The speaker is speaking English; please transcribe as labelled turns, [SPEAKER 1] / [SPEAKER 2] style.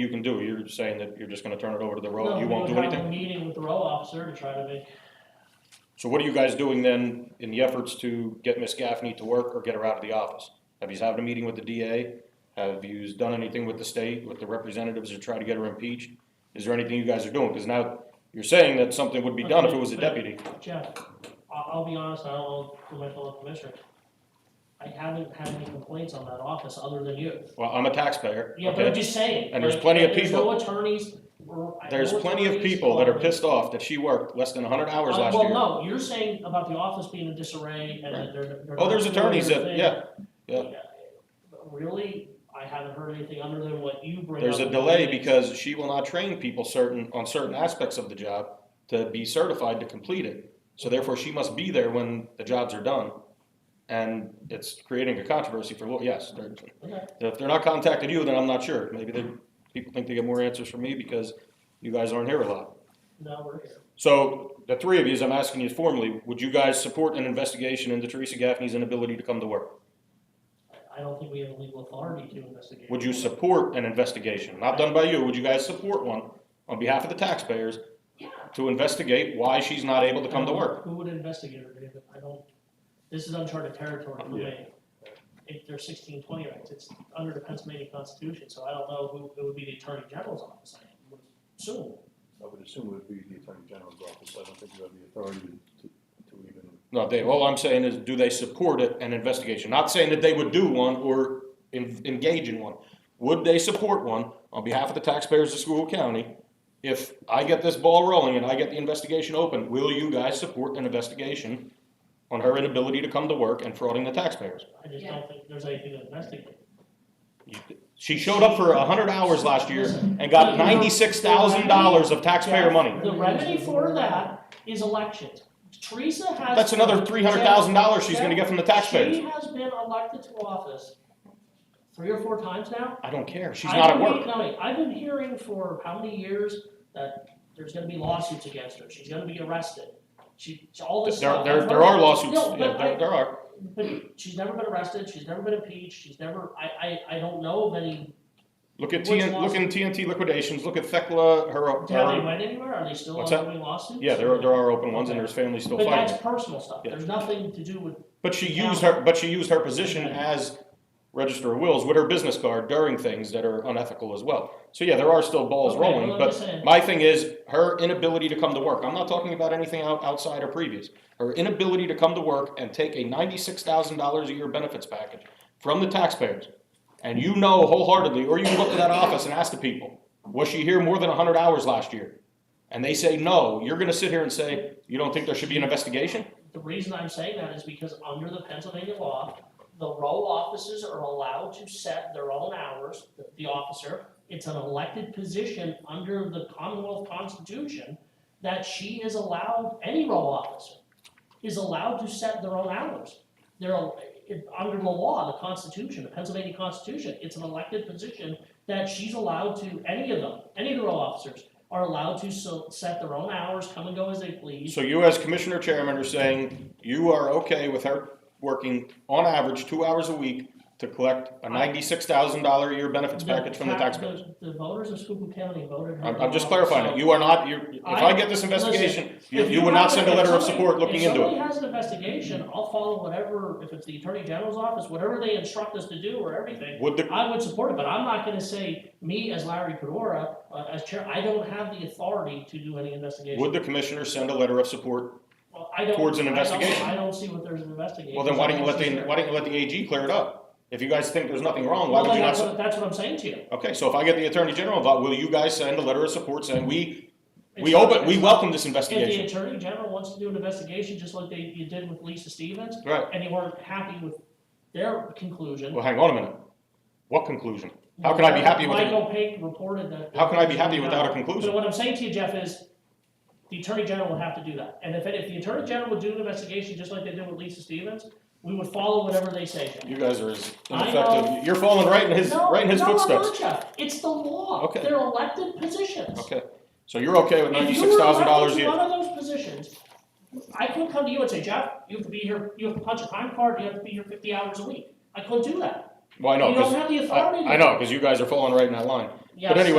[SPEAKER 1] you can do. You're saying that you're just gonna turn it over to the
[SPEAKER 2] No,
[SPEAKER 1] road, you
[SPEAKER 2] we
[SPEAKER 1] won't do
[SPEAKER 2] would have a
[SPEAKER 1] anything?
[SPEAKER 2] Meeting with the row officer to try to make,
[SPEAKER 1] So what are you guys doing then in the efforts to get Miss Gaffney to work or get her out of the office? Have you had a meeting with the DA? Have you done anything with the state, with the representatives to try to get her impeached? Is there anything you guys are doing? Because now you're saying that something would be done if it was a deputy.
[SPEAKER 2] Jeff, I'll, I'll be honest, I don't know who my fellow commissioner. I haven't had any complaints on that office other than you.
[SPEAKER 1] Well, I'm a taxpayer,
[SPEAKER 2] Yeah, but I'm
[SPEAKER 1] okay?
[SPEAKER 2] just saying.
[SPEAKER 1] And there's
[SPEAKER 2] like,
[SPEAKER 1] plenty of
[SPEAKER 2] there's
[SPEAKER 1] people-
[SPEAKER 2] no attorneys. or- I-
[SPEAKER 1] There's
[SPEAKER 2] no
[SPEAKER 1] plenty of
[SPEAKER 2] attorneys
[SPEAKER 1] people that are
[SPEAKER 2] or-
[SPEAKER 1] pissed off that she worked less than hundred hours
[SPEAKER 2] Uh,
[SPEAKER 1] last year.
[SPEAKER 2] Well, no, you're saying about the office being in disarray and that they're. they're
[SPEAKER 1] Oh, there's
[SPEAKER 2] not doing
[SPEAKER 1] attorneys that,
[SPEAKER 2] anything.
[SPEAKER 1] yeah, yeah.
[SPEAKER 2] But Really, I haven't heard anything other than what you bring up.
[SPEAKER 1] There's a
[SPEAKER 2] in
[SPEAKER 1] delay
[SPEAKER 2] meetings.
[SPEAKER 1] because she will not train people certain, on certain aspects of the job to be certified to complete it. So therefore, she must be there when the jobs are done. And it's creating a controversy for, law- yes, they're-
[SPEAKER 2] Okay.
[SPEAKER 1] if they're not contacting you, then I'm not sure. Maybe they, people think they get more answers from me because you guys aren't here a lot.
[SPEAKER 2] No, we're here.
[SPEAKER 1] So the three of you, as I'm asking you formally, would you guys support an investigation into Teresa Gaffney's inability to come to work?
[SPEAKER 2] I- I don't think we have legal authority to investigate.
[SPEAKER 1] Would you support an investigation, not done by you, would you guys support one on behalf of the taxpayers to investigate why she's not able to come to work?
[SPEAKER 2] Who would investigate her, David? I don't, this is uncharted territory for
[SPEAKER 1] Yeah.
[SPEAKER 2] me. If there's sixteen twenty rights, it's under the Pennsylvania Constitution, so I don't know who, it would be the Attorney General's office, I would assume.
[SPEAKER 3] I would assume it would be the Attorney General's office, I don't think you have the authority to, to even,
[SPEAKER 1] No, Dave, all I'm saying is, do they support it, an investigation? Not saying that they would do one or en- engage in one. Would they support one on behalf of the taxpayers of School County? If I get this ball rolling and I get the investigation open, will you guys support an investigation on her inability to come to work and frauding the taxpayers?
[SPEAKER 2] I just don't think there's anything to investigate.
[SPEAKER 1] She showed up for hundred hours last year and got ninety-six thousand dollars of taxpayer money.
[SPEAKER 2] The remedy for that is elections. Teresa has.
[SPEAKER 1] That's another three hundred thousand dollars she's gonna get from the
[SPEAKER 2] She
[SPEAKER 1] taxpayers.
[SPEAKER 2] has been elected to office three or four times now.
[SPEAKER 1] I don't care, she's
[SPEAKER 2] I've
[SPEAKER 1] not at
[SPEAKER 2] been-
[SPEAKER 1] work.
[SPEAKER 2] no, wait, I've been hearing for how many years that there's gonna be lawsuits against her, she's gonna be arrested, she, all this
[SPEAKER 1] There,
[SPEAKER 2] stuff.
[SPEAKER 1] there,
[SPEAKER 2] I've
[SPEAKER 1] there are
[SPEAKER 2] heard-
[SPEAKER 1] lawsuits,
[SPEAKER 2] No,
[SPEAKER 1] yeah,
[SPEAKER 2] but
[SPEAKER 1] there,
[SPEAKER 2] I,
[SPEAKER 1] there are.
[SPEAKER 2] but she's never been arrested, she's never been impeached, she's never, I, I, I don't know of any,
[SPEAKER 1] Look at
[SPEAKER 2] Which
[SPEAKER 1] TN, look in TNT liquidations, look at Thecla, her,
[SPEAKER 2] have they
[SPEAKER 1] her,
[SPEAKER 2] went anywhere, are they still
[SPEAKER 1] What's that?
[SPEAKER 2] ongoing lawsuits?
[SPEAKER 1] yeah, there are, there are open ones and there's families still
[SPEAKER 2] But
[SPEAKER 1] fighting.
[SPEAKER 2] that's personal stuff,
[SPEAKER 1] Yeah.
[SPEAKER 2] there's nothing to do with,
[SPEAKER 1] But she used her, but she used her position as register of wills with her business card during things that are unethical as well. So yeah, there are still balls
[SPEAKER 2] Okay, well,
[SPEAKER 1] rolling,
[SPEAKER 2] I'm just
[SPEAKER 1] but
[SPEAKER 2] saying-
[SPEAKER 1] my thing is her inability to come to work. I'm not talking about anything out, outside or previous. Her inability to come to work and take a ninety-six thousand dollars a year benefits package from the taxpayers. And you know wholeheartedly, or you can look to that office and ask the people, was she here more than hundred hours last year? And they say no, you're gonna sit here and say, you don't think there should be an investigation?
[SPEAKER 2] the reason I'm saying that is because under the Pennsylvania law, the row offices are allowed to set their own hours, the- the officer. It's an elected position under the Commonwealth Constitution that she is allowed, any row officer is allowed to set their own hours. They're, al- it- under the law, the Constitution, the Pennsylvania Constitution, it's an elected position that she's allowed to, any of them, any of the row officers are allowed to so, set their own hours, come and go as they please.
[SPEAKER 1] So you as commissioner chairman are saying you are okay with her working on average two hours a week to collect a ninety-six thousand dollar a year benefits package from the
[SPEAKER 2] tax-
[SPEAKER 1] taxpayers?
[SPEAKER 2] The voters of Schuylkill County voted her.
[SPEAKER 1] I'm, I'm just
[SPEAKER 2] off,
[SPEAKER 1] clarifying
[SPEAKER 2] so
[SPEAKER 1] it. You are not, you, if I get this investigation, you,
[SPEAKER 2] if
[SPEAKER 1] you would not
[SPEAKER 2] have-
[SPEAKER 1] send a
[SPEAKER 2] if
[SPEAKER 1] letter of
[SPEAKER 2] somebody-
[SPEAKER 1] support looking
[SPEAKER 2] If
[SPEAKER 1] into it.
[SPEAKER 2] somebody has an investigation, I'll follow whatever, if it's the Attorney General's office, whatever they instruct us to do or everything,
[SPEAKER 1] Would the,
[SPEAKER 2] I would support it, but I'm not gonna say, me as Larry Pedora, uh, as chair, I don't have the authority to do any investigation.
[SPEAKER 1] would the commissioner send a letter of support?
[SPEAKER 2] Well, I don't-
[SPEAKER 1] towards an
[SPEAKER 2] I don't-
[SPEAKER 1] investigation?
[SPEAKER 2] I don't see what there's an investigation.
[SPEAKER 1] Well, then why don't you let the, why don't you let the AG clear it up? If you guys think there's nothing wrong, why
[SPEAKER 2] Well,
[SPEAKER 1] would you
[SPEAKER 2] then
[SPEAKER 1] not?
[SPEAKER 2] that's
[SPEAKER 1] s-
[SPEAKER 2] what- That's what I'm saying to you.
[SPEAKER 1] Okay, so if I get the attorney general involved, will you guys send a letter of support saying we, we
[SPEAKER 2] It's not-
[SPEAKER 1] open, we
[SPEAKER 2] it's-
[SPEAKER 1] welcome this
[SPEAKER 2] If the
[SPEAKER 1] investigation?
[SPEAKER 2] Attorney General wants to do an investigation, just like they, you did with Lisa Stevens,
[SPEAKER 1] Right.
[SPEAKER 2] and you weren't happy with their conclusion.
[SPEAKER 1] Well, hang on a minute. What conclusion? How can I be happy with it?
[SPEAKER 2] Michael Pink reported that.
[SPEAKER 1] How can I be happy without a conclusion?
[SPEAKER 2] So what I'm saying to you, Jeff, is the Attorney General would have to do that. And if, it- if the Attorney General would do an investigation, just like they did with Lisa Stevens, we would follow whatever they say. Jeff.
[SPEAKER 1] You guys are as
[SPEAKER 2] I know.
[SPEAKER 1] ineffective. You're falling right in his,
[SPEAKER 2] No,
[SPEAKER 1] right in his
[SPEAKER 2] no, I'm not,
[SPEAKER 1] footsteps.
[SPEAKER 2] Jeff. It's the law.
[SPEAKER 1] Okay.
[SPEAKER 2] They're elected positions.
[SPEAKER 1] Okay, so you're okay with
[SPEAKER 2] If you were
[SPEAKER 1] ninety-six thousand dollars a
[SPEAKER 2] elected to
[SPEAKER 1] year?
[SPEAKER 2] One of those positions, I couldn't come to you and say, Jeff, you have to be here, you have to punch a time card, you have to be here fifty hours a week. I couldn't do that.
[SPEAKER 1] Well, I know,
[SPEAKER 2] You don't
[SPEAKER 1] 'cause
[SPEAKER 2] have the
[SPEAKER 1] I,
[SPEAKER 2] authority to.
[SPEAKER 1] I know, because you guys are falling right in that line. But
[SPEAKER 2] Yes.
[SPEAKER 1] anyway,